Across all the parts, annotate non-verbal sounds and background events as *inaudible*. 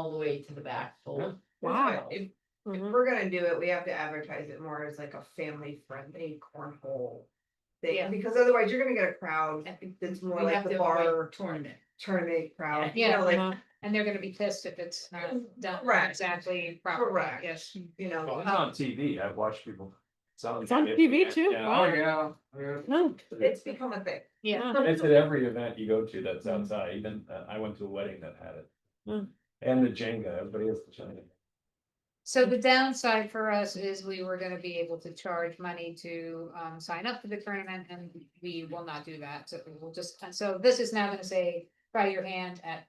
way to the back full. Wow. If, if Mhm. we're gonna do it, we have to advertise it more as like a family friendly cornhole. Yeah. Thing, because otherwise you're gonna get a crowd I think that's more We like have the to avoid bar Tournament. tournament crowd, you Yeah. know, like, Uh-huh. And they're gonna be pissed if it's not done Mm, Correct. exactly properly, Correct. yes. you Well, know. it's on TV, I've watched people. It's on TV too, wow. yeah. No, It's become a thing. Yeah. Oh. It's at every event you go to that's outside, even, uh, I went to a wedding that had it. Mm. And the Jenga, everybody has the Jenga. So the downside for us is we were gonna be able to charge money to um sign up for the tournament and we will not do that. So we'll just, and so this is now gonna say, try your hand at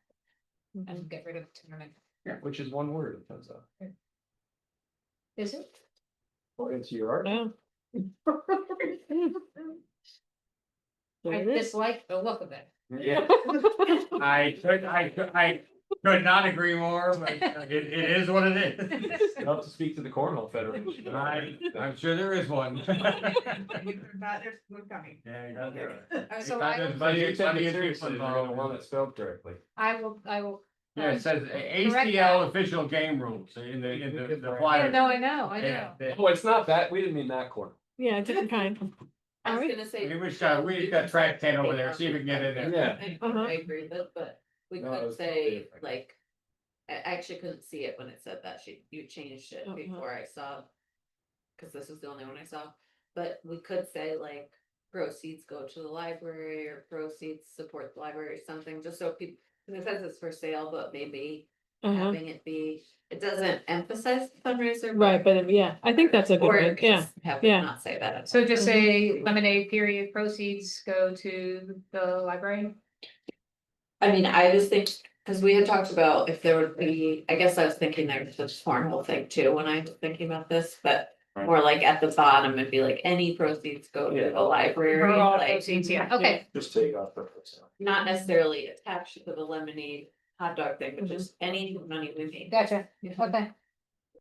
and get rid of the tournament. Yeah. Which is one word, it turns out, Is it? according to your art. no. *laughs* There I *laughs* it is. dislike the look of it. *laughs* *laughs* Yeah. I could, I could, I could not agree more, but it, it is what it is. You'll have to speak to the Cornhole *laughs* Federation. I, I'm sure there is *laughs* one. there's one coming. Yeah, you got it. Uh, So Because I, there's But you plenty- take plenty it of seriously, people you're gonna involved. want it spelled correctly. I will, I will. Yeah, it says ACL official game rules in the, in the, the Yeah, flyer. no, I know, I know. Yeah, they- Oh, it's not that, we didn't mean that corner. Yeah, *laughs* different kind. I was Alright. gonna say. We wish, uh, we got track ten over there, see if we can get in there. Yeah. *laughs* I Uh-huh. I agree with, but we No, could it's not say different. like. I actually couldn't see it when it said that, she, you changed it Uh-huh. before I saw. Cause this was the only one I saw, but we could say like proceeds go to the library or proceeds support the library or something, just so people. And it says it's for sale, but maybe Uh-huh. having it be, it doesn't emphasize the fundraiser. Right, but um, yeah, I think that's a good Or one, it could yeah. just Have yeah. it not say that. So just say lemonade period proceeds go to the library? I mean, I just think, cause we had talked about if there would be, I guess I was thinking there's this cornhole thing too, when I was thinking about this, but. Right. More like at the bottom and be like, any proceeds go to the For library, all like, proceeds, yeah, okay, Just take off the. first one. not necessarily attached to the lemonade hot dog thing, but just Mm-hmm. any money we made. gotcha, okay.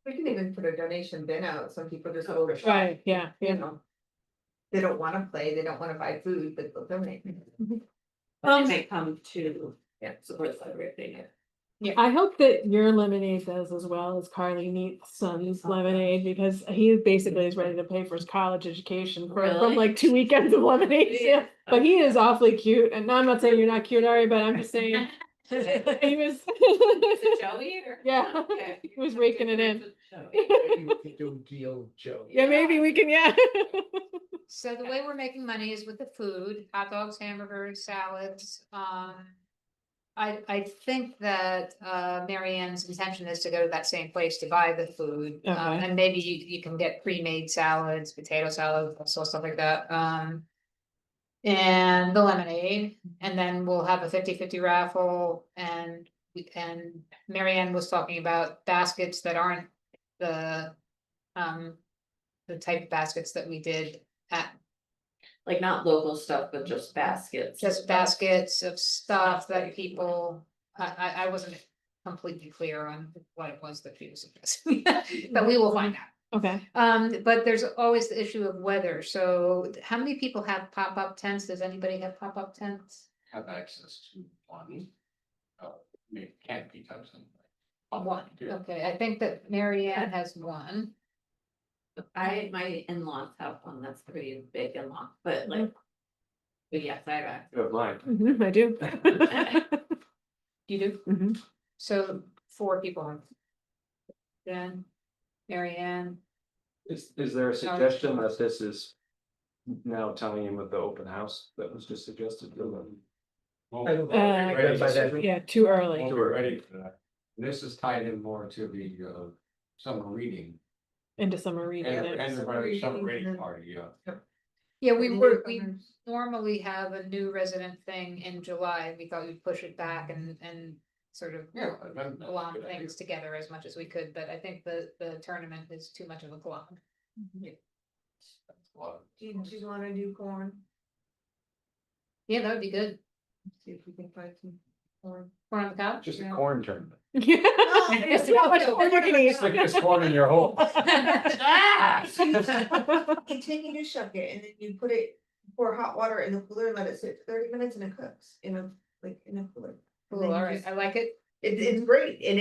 We can even put a donation bin out, some people just go to shop, Right, yeah, you yeah. know. They don't wanna play, they don't wanna buy food, but they'll donate. They may come to, Yeah. support the library thing. I hope that your lemonade does as well as Carly Neat's Oh, son's lemonade, because he basically is ready to pay for his college education for- from Really? like two weekends of lemonade. Yeah, *laughs* but he is awfully cute, and I'm not saying you're not cute, Ari, but I'm *laughs* just saying. *laughs* He was, Is *laughs* it Joey or? yeah, Okay. he was raking it in. Joey. Yeah, maybe we can, yeah. *laughs* So the way we're making money is with the food, hot dogs, hamburgers, salads, um. I, I think that, uh, Mary Ann's intention is to go to that same place to buy the food. um, Okay. And maybe you, you can get pre-made salads, potato salad, so stuff like that, um. And the lemonade, and then we'll have a 50-50 raffle and, we- and Mary Ann was talking about baskets that aren't the. Um, the type of baskets that we did at, Like not local stuff, but just baskets. just baskets of stuff that people, I, I, I wasn't completely clear on what it was that she was addressing. *laughs* But we will find out. Okay, Um, but there's always the issue of weather. So how many people have pop-up tents? Does anybody have pop-up tents? Have access to one. Oh, it can't be touched. One, okay. I think that Mary Ann has one. I, my in-laws have one, that's pretty big in-law, but like. But yes, I have. a- You have mine. Mhm, I do. You do? Mhm. So four people. Jen, Mary Ann, Is, is there a suggestion that this is now tying in with the open house that was just suggested? Uh, Ready by that. Yeah, too early. We're ready for that. This is tied in more to the, uh, summer reading Into summer reading. and, yeah. and the Summer summer reading, reading yeah. party, yeah. yeah, we And were, then we others. normally have a new resident thing in July, and we thought we'd push it back and, and sort of. Yeah. I remember that. Glom Good idea. things together as much as we could, but I think the, the tournament is too much of a glom. Well, Do you, do you wanna do corn? Yeah, that would be good. See if we can find some corn. Corn on the cob? Just a Yeah. corn tournament. *laughs* It's not much corn you can eat. Stick this corn in your hole. *laughs* Ah! You take a new shuck it and then you put it, pour hot water in the cooler and let it sit for thirty minutes and it cooks in a, like, in a cooler. Cool, all right, I like it. It's, it's great and